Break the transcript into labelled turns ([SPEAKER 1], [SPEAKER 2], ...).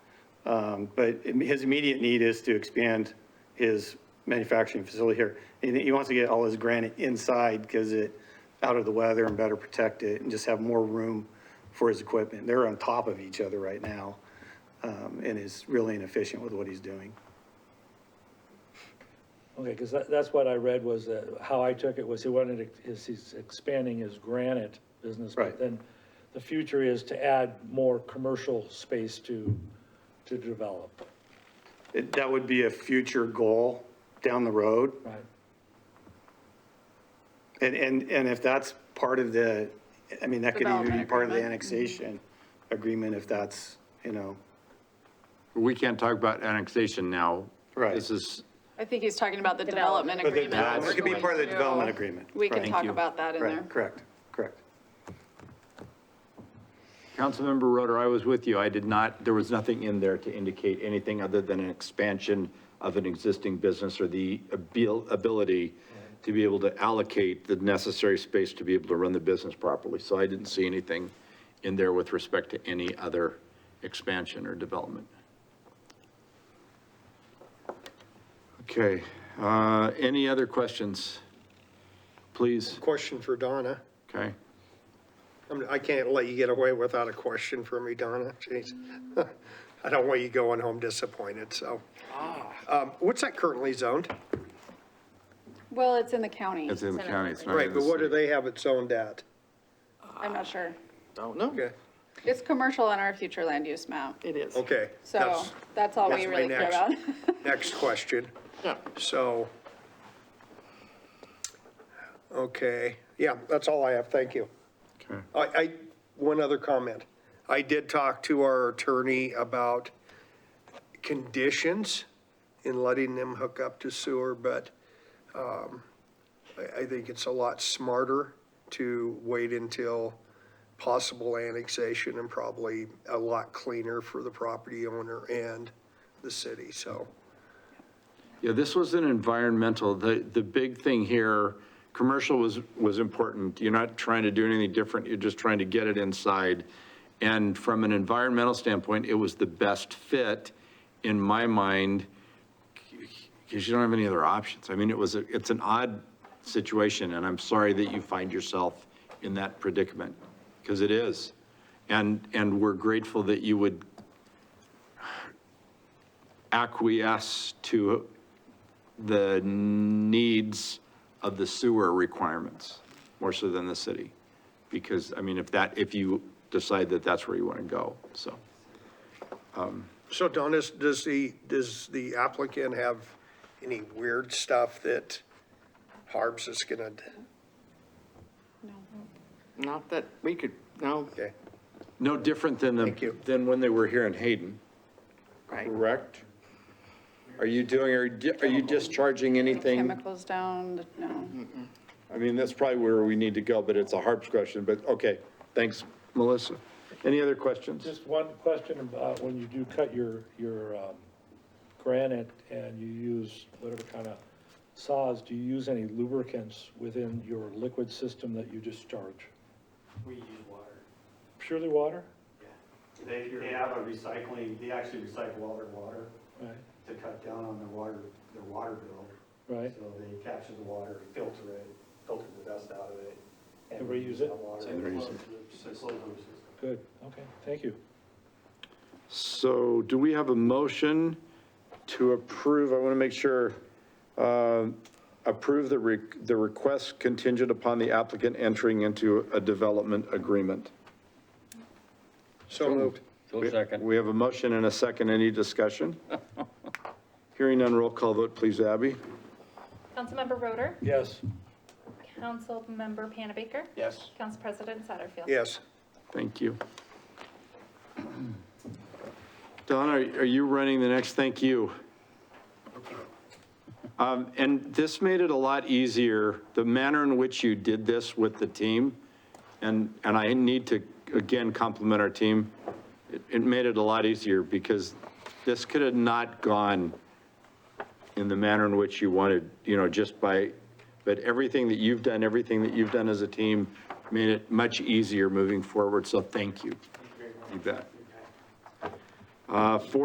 [SPEAKER 1] Um, But his immediate need is to expand his manufacturing facility here. And he wants to get all his granite inside because it, out of the weather and better protect it and just have more room for his equipment. They're on top of each other right now um, and is really inefficient with what he's doing.
[SPEAKER 2] Okay, because that, that's what I read was, that how I took it was he wanted, to- is he's expanding his granite business. but
[SPEAKER 1] Right.
[SPEAKER 2] Then the future is to add more commercial space to, to develop,
[SPEAKER 1] It- That would be a future goal down the road.
[SPEAKER 2] right?
[SPEAKER 1] And, and, and if that's part of the, I mean, that could even be
[SPEAKER 3] Development
[SPEAKER 1] part of the
[SPEAKER 3] agreement.
[SPEAKER 1] annexation agreement if that's, you know,
[SPEAKER 4] We can't talk about annexation now.
[SPEAKER 1] Right.
[SPEAKER 4] This is,
[SPEAKER 3] I think he's talking about the development
[SPEAKER 1] But the
[SPEAKER 3] agreement.
[SPEAKER 1] development-
[SPEAKER 3] we're
[SPEAKER 1] it could be
[SPEAKER 3] going
[SPEAKER 1] part of the
[SPEAKER 3] to-
[SPEAKER 1] development agreement.
[SPEAKER 3] We
[SPEAKER 1] Right.
[SPEAKER 3] can
[SPEAKER 1] Thank
[SPEAKER 3] talk
[SPEAKER 4] you.
[SPEAKER 3] about that in there.
[SPEAKER 1] right, correct, correct.
[SPEAKER 4] Councilmember Roder, I was with you. I did not, there was nothing in there to indicate anything other than an expansion of an existing business or the abil- ability to be able to allocate the necessary space to be able to run the business properly. So I didn't see anything in there with respect to any other expansion or development. Okay, uh, any other questions? Please,
[SPEAKER 5] Question for Donna.
[SPEAKER 4] okay?
[SPEAKER 5] I mean, I can't let you get away without a question for me, Donna. Jeez. I don't want you going home disappointed, so. Um, What's that currently zoned?
[SPEAKER 3] Well, it's in the county.
[SPEAKER 4] It's in the county, it's not in
[SPEAKER 5] Right, but
[SPEAKER 4] the
[SPEAKER 5] what do
[SPEAKER 4] city.
[SPEAKER 5] they have it zoned at?
[SPEAKER 3] I'm not sure.
[SPEAKER 6] Don't know.
[SPEAKER 5] Okay,
[SPEAKER 3] It's commercial on our future land use map.
[SPEAKER 6] It is.
[SPEAKER 5] okay.
[SPEAKER 3] So
[SPEAKER 5] that's-
[SPEAKER 3] that's all we
[SPEAKER 5] that's my
[SPEAKER 3] really care
[SPEAKER 5] next-
[SPEAKER 3] about.
[SPEAKER 5] Next question.
[SPEAKER 6] Yeah.
[SPEAKER 5] So, okay, yeah, that's all I have, thank you.
[SPEAKER 4] Okay.
[SPEAKER 5] I, I, one other comment. I did talk to our attorney about conditions in letting them hook up to sewer, but um, I, I think it's a lot smarter to wait until possible annexation and probably a lot cleaner for the property owner and the city, so.
[SPEAKER 4] Yeah, this was an environmental, the, the big thing here, commercial was, was important. You're not trying to do anything different, you're just trying to get it inside. And from an environmental standpoint, it was the best fit in my mind, because you don't have any other options. I mean, it was, a- it's an odd situation, and I'm sorry that you find yourself in that predicament, because it is. And, and we're grateful that you would acquiesce to the needs of the sewer requirements, more so than the city. Because, I mean, if that, if you decide that that's where you want to go, so.
[SPEAKER 5] So Don, does, does the, does the applicant have any weird stuff that Harbs is gonna,
[SPEAKER 6] Not that we could, no,
[SPEAKER 5] okay?
[SPEAKER 4] No different than
[SPEAKER 5] Thank
[SPEAKER 4] the,
[SPEAKER 5] you.
[SPEAKER 4] than when they were here in Hayden,
[SPEAKER 6] right.
[SPEAKER 4] correct? Are you doing, are you- are you discharging anything?
[SPEAKER 3] Chemicals down, no.
[SPEAKER 4] I mean, that's probably where we need to go, but it's a harps question, but okay, thanks, Melissa. Any other questions?
[SPEAKER 2] Just one question about when you do cut your, your um, granite and you use whatever kind of saws, do you use any lubricants within your liquid system that you discharge?
[SPEAKER 1] We use water.
[SPEAKER 2] Purely water?
[SPEAKER 1] They, they have a recycling, they actually recycle all their water
[SPEAKER 2] Right,
[SPEAKER 1] to cut down on their water, their water bill.
[SPEAKER 2] right.
[SPEAKER 1] So they capture the water, filter it, filter the dust out of it.
[SPEAKER 2] And reuse it?
[SPEAKER 1] that water.
[SPEAKER 4] And reuse it.
[SPEAKER 1] So it's closed loop system.
[SPEAKER 2] Good, okay, thank you.
[SPEAKER 4] So do we have a motion to approve, I want to make sure, uh, approve the, re- the request contingent upon the applicant entering into a development agreement?
[SPEAKER 5] So moved.
[SPEAKER 4] We have a motion and a second, any discussion? Hearing none, roll call vote, please, Abby.
[SPEAKER 7] Councilmember Roder,
[SPEAKER 2] Yes,
[SPEAKER 7] Councilmember Panabaker,
[SPEAKER 4] Yes.
[SPEAKER 7] Council President Satterfield.
[SPEAKER 5] Yes,
[SPEAKER 4] Thank you. Don, are are you running the next thank you? Um, And this made it a lot easier, the manner in which you did this with the team, and, and I need to, again, compliment our team. It- It made it a lot easier because this could have not gone in the manner in which you wanted, you know, just by, but everything that you've done, everything that you've done as a team made it much easier moving forward, so thank you. You bet. Uh,